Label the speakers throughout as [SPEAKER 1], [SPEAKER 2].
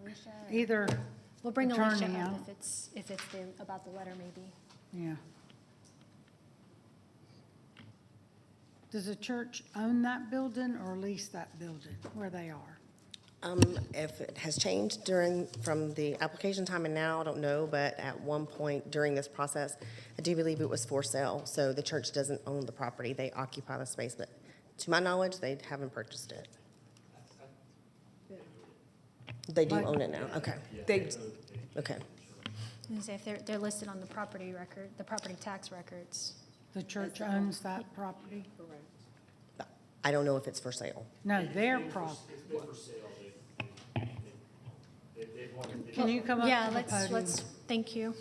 [SPEAKER 1] Alicia? or-
[SPEAKER 2] Either
[SPEAKER 1] We'll bring Alicia
[SPEAKER 2] attorney,
[SPEAKER 1] up
[SPEAKER 2] yeah.
[SPEAKER 1] if it's, if it's the- about the letter maybe.
[SPEAKER 2] Yeah. Does the church own that building or lease that building where they are?
[SPEAKER 3] Um, if it has changed during, from the application time and now, I don't know, but at one point during this process, I do believe it was for sale, so the church doesn't own the property, they occupy the space, but to my knowledge, they haven't purchased it. They do own it now, okay,
[SPEAKER 4] They,
[SPEAKER 1] I
[SPEAKER 3] okay.
[SPEAKER 1] was gonna say, if they're, they're listed on the property record, the property tax records.
[SPEAKER 2] The church owns that property?
[SPEAKER 3] I don't know if it's for sale.
[SPEAKER 2] No, their property. Can you come up
[SPEAKER 1] Yeah,
[SPEAKER 2] to the
[SPEAKER 1] let's,
[SPEAKER 2] podium?
[SPEAKER 1] let's, thank you,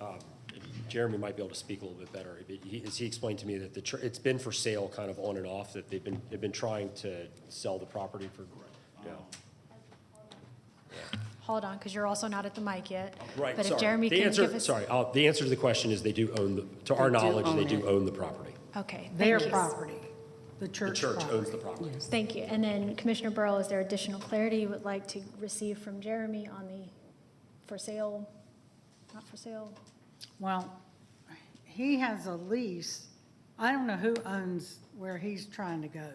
[SPEAKER 1] and
[SPEAKER 5] Jeremy might be able to speak a little bit better, but he, as he explained to me that the, chur- it's been for sale kind of on and off, that they've been, they've been trying to sell the property for, you know.
[SPEAKER 1] hold on, because you're also not at the mic yet.
[SPEAKER 5] Right, sorry.
[SPEAKER 1] But if Jeremy
[SPEAKER 5] The
[SPEAKER 1] can
[SPEAKER 5] answer-
[SPEAKER 1] give us.
[SPEAKER 5] Sorry, uh, the answer to the question is they do own, the to our
[SPEAKER 4] They do
[SPEAKER 5] knowledge, they
[SPEAKER 4] own
[SPEAKER 5] do
[SPEAKER 4] it.
[SPEAKER 5] own the property.
[SPEAKER 1] Okay,
[SPEAKER 2] Their
[SPEAKER 1] thank you.
[SPEAKER 2] property, the
[SPEAKER 5] The
[SPEAKER 2] church
[SPEAKER 5] church
[SPEAKER 2] property.
[SPEAKER 5] owns the property.
[SPEAKER 1] Thank you. And then Commissioner Burrow, is there additional clarity you would like to receive from Jeremy on the for sale, not for sale?
[SPEAKER 2] Well, he has a lease. I don't know who owns where he's trying to go,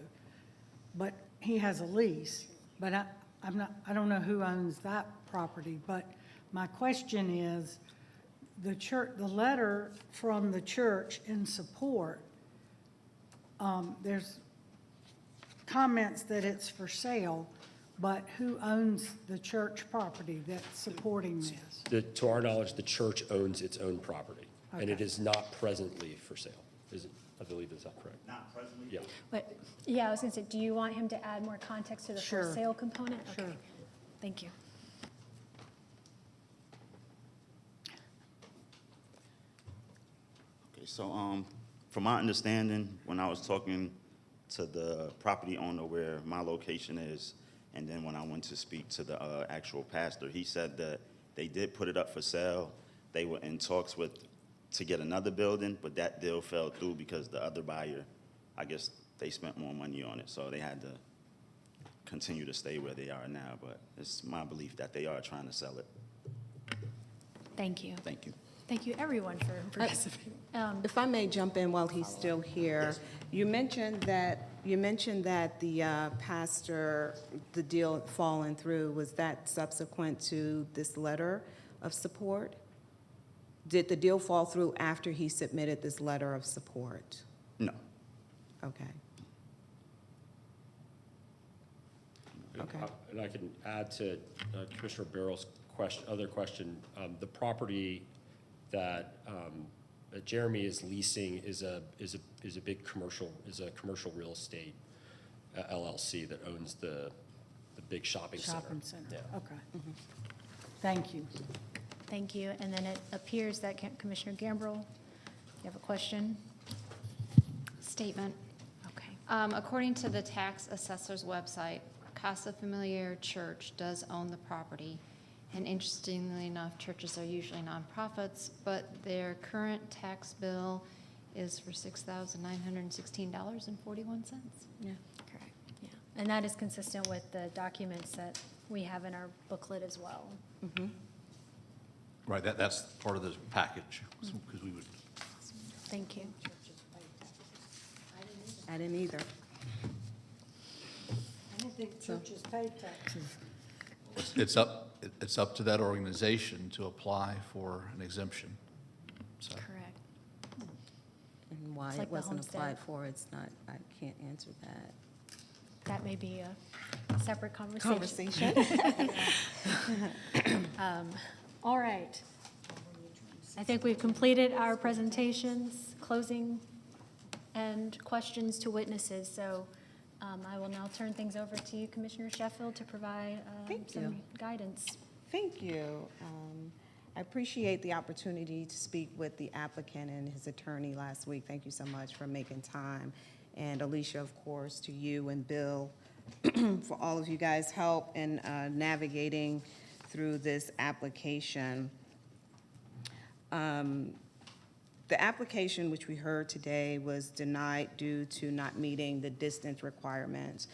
[SPEAKER 2] but he has a lease. But I, I'm not, I don't know who owns that property. But my question is, the church, the letter from the church in support, um, there's comments that it's for sale, but who owns the church property that's supporting this?
[SPEAKER 5] The, to our knowledge, the church owns its own property, and it is not presently for sale, is it? I believe is that correct? Not presently. Yeah.
[SPEAKER 1] But, yeah, I was going to say, do you want him to add more context to the for
[SPEAKER 2] Sure.
[SPEAKER 1] sale component?
[SPEAKER 2] Sure.
[SPEAKER 1] Okay, Thank you.
[SPEAKER 6] Okay, so, um, from my understanding, when I was talking to the property owner where my location is, and then when I went to speak to the, uh, actual pastor, he said that they did put it up for sale. They were in talks with, to get another building, but that deal fell through because the other buyer, I guess, they spent more money on it, so they had to continue to stay where they are now, but it's my belief that they are trying to sell it.
[SPEAKER 1] Thank you.
[SPEAKER 6] Thank you.
[SPEAKER 1] Thank you, everyone, for participating. Um,
[SPEAKER 4] if I may jump in while he's still here, you mentioned that, you mentioned that the uh, pastor, the deal falling through, was that subsequent to this letter of support? Did the deal fall through after he submitted this letter of support?
[SPEAKER 6] No,
[SPEAKER 4] Okay. Okay.
[SPEAKER 5] And I can add to uh, Commissioner Barrel's question, other question, um, the property that, um, that Jeremy is leasing is a, is a, is a big commercial, is a commercial real estate uh, LLC that owns the, the big shopping center.
[SPEAKER 2] Shopping center,
[SPEAKER 5] Yeah.
[SPEAKER 2] okay. Thank you.
[SPEAKER 1] Thank you. And then it appears that Ca- Commissioner Gambrell, you have a question?
[SPEAKER 7] Statement.
[SPEAKER 1] Okay.
[SPEAKER 7] Um, According to the tax assessor's website, Casa Familiar Church does own the property. And interestingly enough, churches are usually nonprofits, but their current tax bill is for $6,916.41. Yeah.
[SPEAKER 1] Correct, yeah. And that is consistent with the documents that we have in our booklet as well.
[SPEAKER 8] Right, that, that's part of the package, because we would,
[SPEAKER 1] Thank you.
[SPEAKER 4] I didn't either.
[SPEAKER 2] I don't think churches pay taxes.
[SPEAKER 8] it's up, it- it's up to that organization to apply for an exemption. So
[SPEAKER 1] Correct.
[SPEAKER 9] And why
[SPEAKER 1] It's like
[SPEAKER 9] it
[SPEAKER 1] the
[SPEAKER 9] wasn't
[SPEAKER 1] homestead.
[SPEAKER 9] applied for, it's not, I can't answer that.
[SPEAKER 1] That may be a separate conversation.
[SPEAKER 4] Conversation.
[SPEAKER 1] Um, All right. I think we've completed our presentations, closing, and questions to witnesses. So um, I will now turn things over to you, Commissioner Sheffield, to provide um,
[SPEAKER 4] Thank you.
[SPEAKER 1] some guidance.
[SPEAKER 4] Thank you. Um, I appreciate the opportunity to speak with the applicant and his attorney last week. Thank you so much for making time. And Alicia, of course, to you and Bill, for all of you guys' help in uh, navigating through this application. Um, The application, which we heard today, was denied due to not meeting the distance requirements